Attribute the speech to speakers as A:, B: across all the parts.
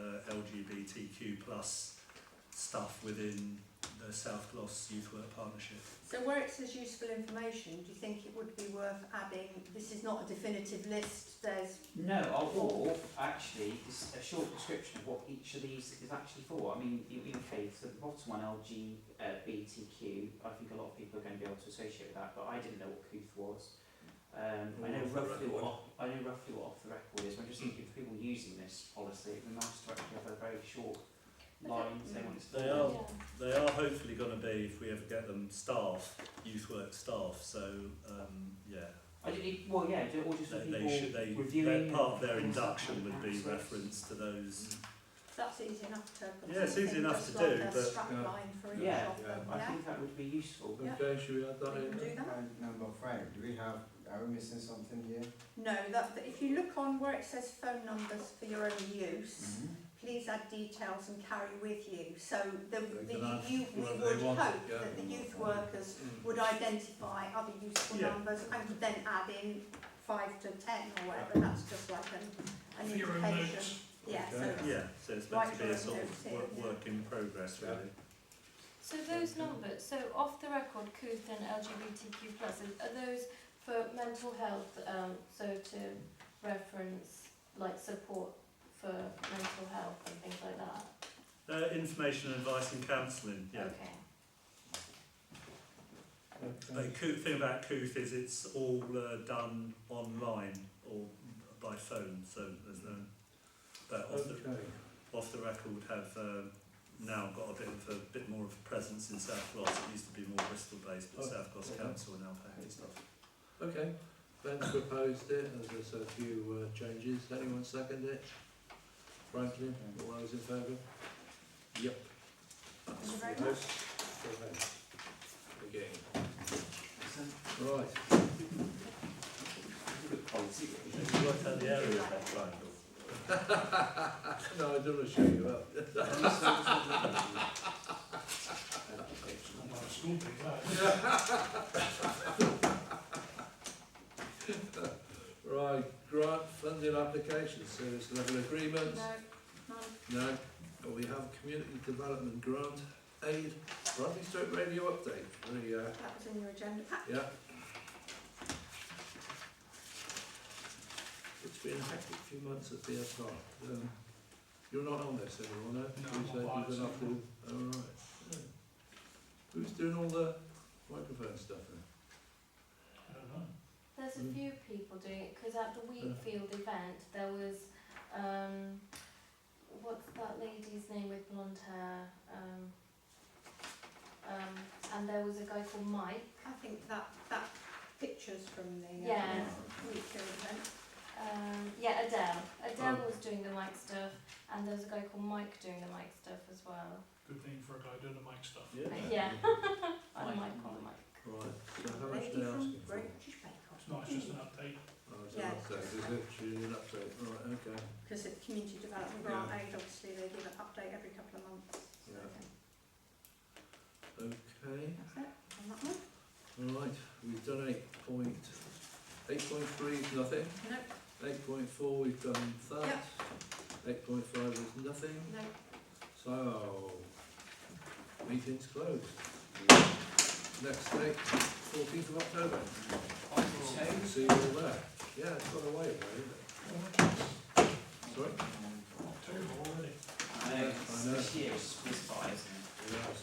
A: uh, LGBTQ plus stuff within the South Gloss Youth Work Partnership.
B: So where it says useful information, do you think it would be worth adding, this is not a definitive list, there's,
C: No, or, or actually, just a short description of what each of these is actually for. I mean, you indicate so the bottom one, uh, LGBTQ, I think a lot of people are going to be able to associate with that, but I didn't know what couth was. Um, I know
A: Off the
C: roughly what
A: record.
C: off- I know roughly what off the record is. but I'm just thinking for people using this policy, it'd be nice to actually have a very short line saying what it's for.
A: They are they are hopefully going to be if we ever get them staff youth work staff. So um, yeah,
C: I did, it- well, yeah, ju- or just for
A: they,
C: people
A: they should they
C: reviewing.
A: their part of their
C: and stuff
A: induction
C: like
A: would be
C: that, so it's-
A: reference to those.
B: that's easy enough to. put
A: Yeah, it's easy
B: something
A: enough
B: just
A: to
B: like
A: do,
B: a
A: but-
B: strap
D: Yeah.
B: line for each
C: Yeah.
B: of them,
C: I
B: yeah?
C: think that would be useful.
D: Okay, should we add that
B: We
D: in?
B: can
D: then?
B: do that.
E: And number five, do we have, are we missing something here?
B: No, that, that if you look on where it says phone numbers for your own use, please add details and carry with you. So the,
D: They
B: the
D: can add
B: you, we
D: where they
B: would hope
D: want it, yeah.
B: that the youth workers
D: Mm.
B: would identify other useful
A: Yeah.
B: numbers and would then add in five to ten or whatever, that's just like an, an
F: For your own
B: indication.
F: notes.
B: Yeah, so,
D: Okay.
A: Yeah, so it's meant
B: Right,
A: to be a
B: right,
A: sort
B: yeah.
A: of work, work in progress really.
G: So those numbers, so off the record, Cooth and LGBTQ pluses, are those for mental health, um, so to reference like support for mental health and things like that?
A: Uh, information, advice, and counselling. Yeah.
G: Okay.
A: The coo- thing about Cooth is it's all uh, done online or by phone, so there's no. But off the,
D: Okay.
A: off the record have uh, now got a bit of a bit more of a presence in South Gloss. It used to be more Bristol based, but
D: Oh,
A: South Gloss
D: okay.
A: Council now package stuff.
D: Okay, Ben's proposed it, as I said, a few uh, changes, anyone second it? Franklin, all those in favour? Yep.
B: Thank you very much.
D: Again.
C: So,
D: Right,
C: it's a good policy, really.
A: You worked out the area of that triangle.
D: no, I don't want to show you up.
F: Not like a school pig, that.
D: Right, grant funding application, service level agreement.
B: no, none.
D: No, but we have community development grant aid, Bradley Stoke radio update, Very, uh,
B: that was in your agenda. Ah,
D: yeah. It's been a hectic few months at BSR, um, you're not on this anymore,
F: No,
D: no?
F: I'm
D: You said
F: not
D: you've been
F: on
D: off
F: it,
D: all- all right. yeah. Who's doing all the microphone stuff then?
F: I don't know.
G: There's
D: Mm.
G: a few people doing it because at the Wheatfield event there was um, what's that lady's name with blonde hair? Um, um, and there was a guy called Mike.
B: I think that, that picture's from the. uh,
G: Yeah.
B: Weekly event.
G: Um, yeah, Adele. Adele
D: Oh.
G: was doing the mic stuff, and there was a guy called Mike doing the mic stuff as well.
F: Good thing for a guy doing the mic stuff.
G: Yeah. And Mike,
C: Mike.
G: on the mic.
D: Right, so how much
B: Lady
D: they
B: from
D: asking for?
B: British Bake
F: It's not, it's just an update.
D: Oh, it's an
B: Yeah.
D: update, is it? She did an update, right, okay,
B: Because at Community Development Grant Aid, obviously, they give an update every couple of months. So,
D: Yeah.
B: yeah,
D: okay.
B: That's it, on that one.
D: Right, we've done eight point, eight point three is nothing,
B: No,
D: eight point four we've done that,
B: Yep.
D: eight point five is nothing,
B: no,
D: so meeting's closed. Next date, fourteenth of October, see you all there. Yeah, it's gone away, hasn't it? Sorry?
F: October already.
C: I know, it's- this year it's whizzed by, isn't it?
D: Yes.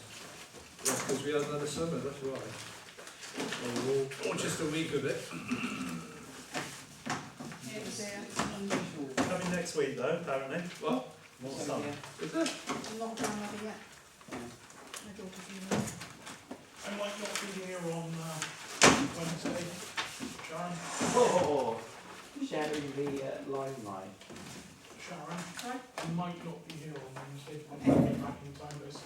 D: Yeah, because we had another summer, that's why. Or, or just a week of it.
B: it's there.
A: Coming next week though, apparently.
D: Well,
A: More sun.
D: is it?
B: lockdown over yet. My daughter's university.
F: I might not be here on uh, Wednesday, Sharon,
C: Oh, sharing the uh, limelight.
F: Sharon,
B: Sorry?
F: I might not be here on Wednesday, I might be back in time, but it's